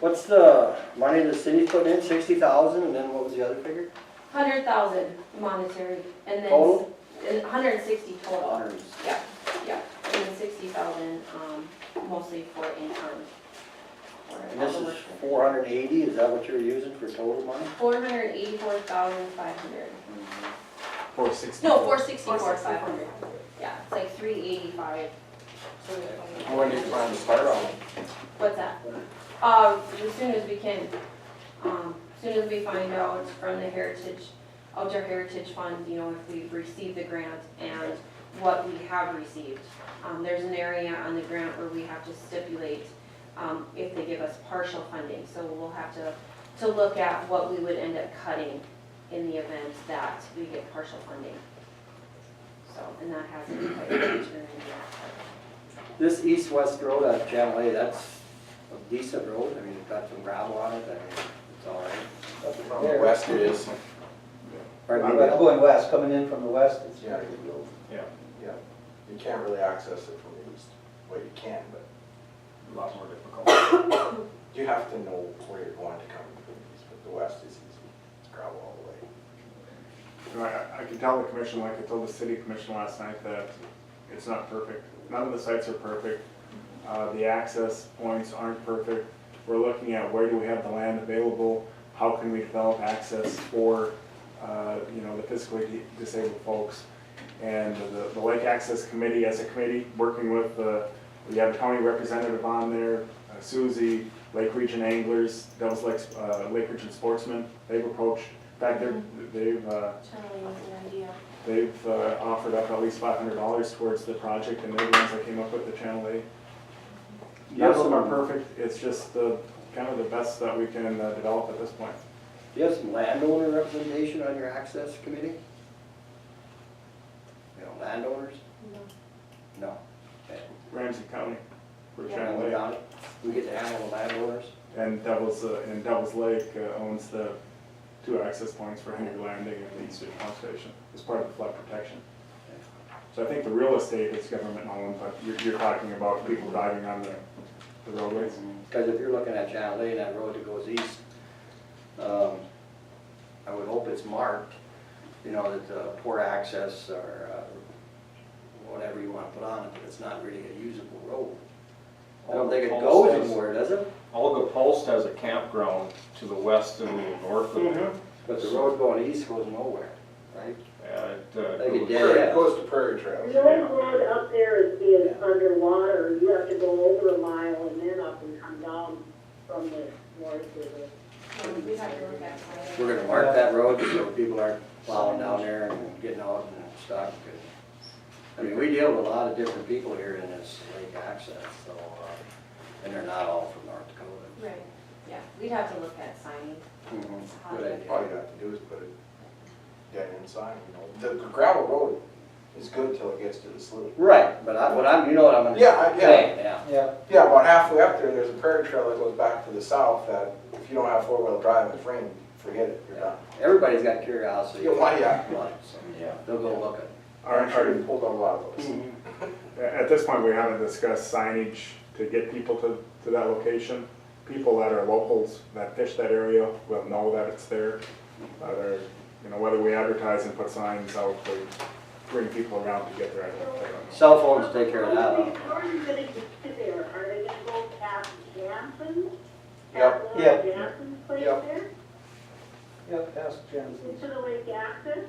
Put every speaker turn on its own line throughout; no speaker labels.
What's the money the city's putting in, sixty thousand, and then what was the other figure?
Hundred thousand monetary, and then,
Total?
hundred and sixty total,
Hundreds.
and then sixty thousand, um, mostly for income.
And this is four hundred and eighty, is that what you're using for total money?
Four hundred and eighty-four thousand five hundred,
Four sixty.
no, four sixty-four five hundred, yeah, it's like three eighty-five.
When do you plan to start on? it?
What's that? Um, as soon as we can, um, as soon as we find out from the Heritage, Outdoor Heritage Fund, you know, if we've received the grant and what we have received. Um, there's an area on the grant where we have to stipulate, um, if they give us partial funding, so we'll have to, to look at what we would end up cutting in the event that we get partial funding. So, and that hasn't quite been determined yet.
This east-west road on Channel A, that's a decent road, I mean, it's got some gravel on it, I mean, it's all right.
From the west it is.
Pardon me,
But
but-
going west, coming in from the west, it's not a good road.
You can't really access it from the east. Well, you can, but
A lot more difficult.
you have to know where you're going to come from the east, but the west is easy. It's gravel all the way.
You know, I, I can tell the commission, like I told the city commission last night, that it's not perfect. None of the sites are perfect. Uh, the access points aren't perfect. We're looking at where do we have the land available? How can we develop access for, uh, you know, the physically di- disabled folks? And the, the Lake Access Committee, as a committee, working with the, we have a county representative on there, uh, Suzie, Lake Region Anglers, Devils Lake, uh, Lake Region Sportsmen, they've approached, in fact, they're, they've, uh,
Charlie has an idea.
They've uh, offered up at least five hundred dollars towards the project, and they're the ones that came up with the Channel A. None of them are perfect, it's just the, kind of the best that we can uh, develop at this point.
Do you have some landowner representation on your access committee? You know, landowners? No.
Ramsey County
Yeah.
for
We
Channel
got it. We get to handle the landowners?
A, and Devils, uh, and Devils Lake uh, owns the two access points for Henry Landing and the East Ridge Pump Station, as part of the flood protection. So I think the real estate is government owned, but you're, you're talking about people driving on the the roadways.
Because if you're looking at Channel A, that road that goes east, um, I would hope it's marked, you know, that uh, poor access or uh, whatever you want to put on it, but it's not really a usable road. I don't think it goes anywhere, does it?
Olga Post has a campground to the west and north of it.
But the road going east goes nowhere, right?
And,
Like a
uh,
dead
Prairie- It
end.
goes to Prairie Trail.
The old road up there is being underwater, you have to go over a mile and then up and come down from the north to the.
Um, We'd have to look at. it.
We're gonna mark that road so people aren't plowing down there and getting out and stuck. I mean, we deal with a lot of different people here in this lake access, so, uh, and they're not all from North Dakota.
Right, yeah, we'd have to look at signing.
Good
All
idea.
you have to do is put a dead end sign, you know. The gravel road is good till it gets to the slough.
Right, but I, what I'm, you know what I'm
Yeah, I-
gonna
yeah.
say, yeah.
Yeah,
Yeah, about halfway up there, there's a Prairie Trail that goes back to the south that if you don't have four-wheel drive and it's raining, forget it, you're done.
Everybody's got curiosity.
Yeah, why, yeah.
Right, so
yeah.
They'll go look
Our-
I'm
our-
sure you pulled on a lot of
at
those.
Mm.
it.
At this point, we haven't discussed signage to get people to, to that location. People that are locals, that fish that area, will know that it's there. Whether, you know, whether we advertise and put signs out, we bring people around to get there, I don't, I don't know.
Cell phones take care of that. huh?
How are you gonna get to there, are they gonna go past Jansen's?
Yep.
Past
Yep.
Jansen's place
Yep.
there,
yeah, ask Jensen.
into the lake access?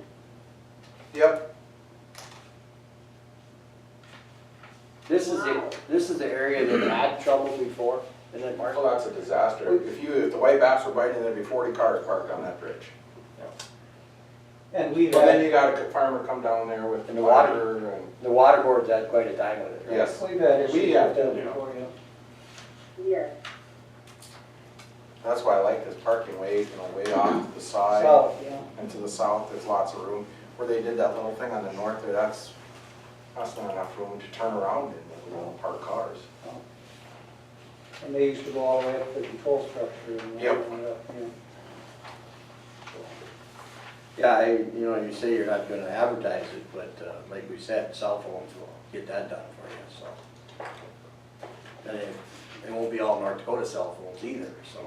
Yep,
This is the, this is the area that had trouble before, isn't it, Mark?
well, that's a disaster. If you, if the white bass were biting, there'd be forty cars parked on that bridge.
And we've
Well, then
had,
you got a farmer come down there with
And the water.
water and
The water board's had quite a time with it, right?
Yeah. yes.
we've had issues
We
with
have,
that
yeah.
before, yeah.
Yes.
that's why I like this parking way, you know, way off to the side
South, yeah.
and to the south, there's lots of room. Where they did that little thing on the north there, that's, that's not enough room to turn around in, you know, park cars.
And they used to go all the way up to the control structure and.
Yep.
all the way up, yeah.
Yeah, I, you know, you say you're not gonna advertise it, but uh, like we said, cell phones will get that done for you, so. And it, it won't be all North Dakota cell phones either, so.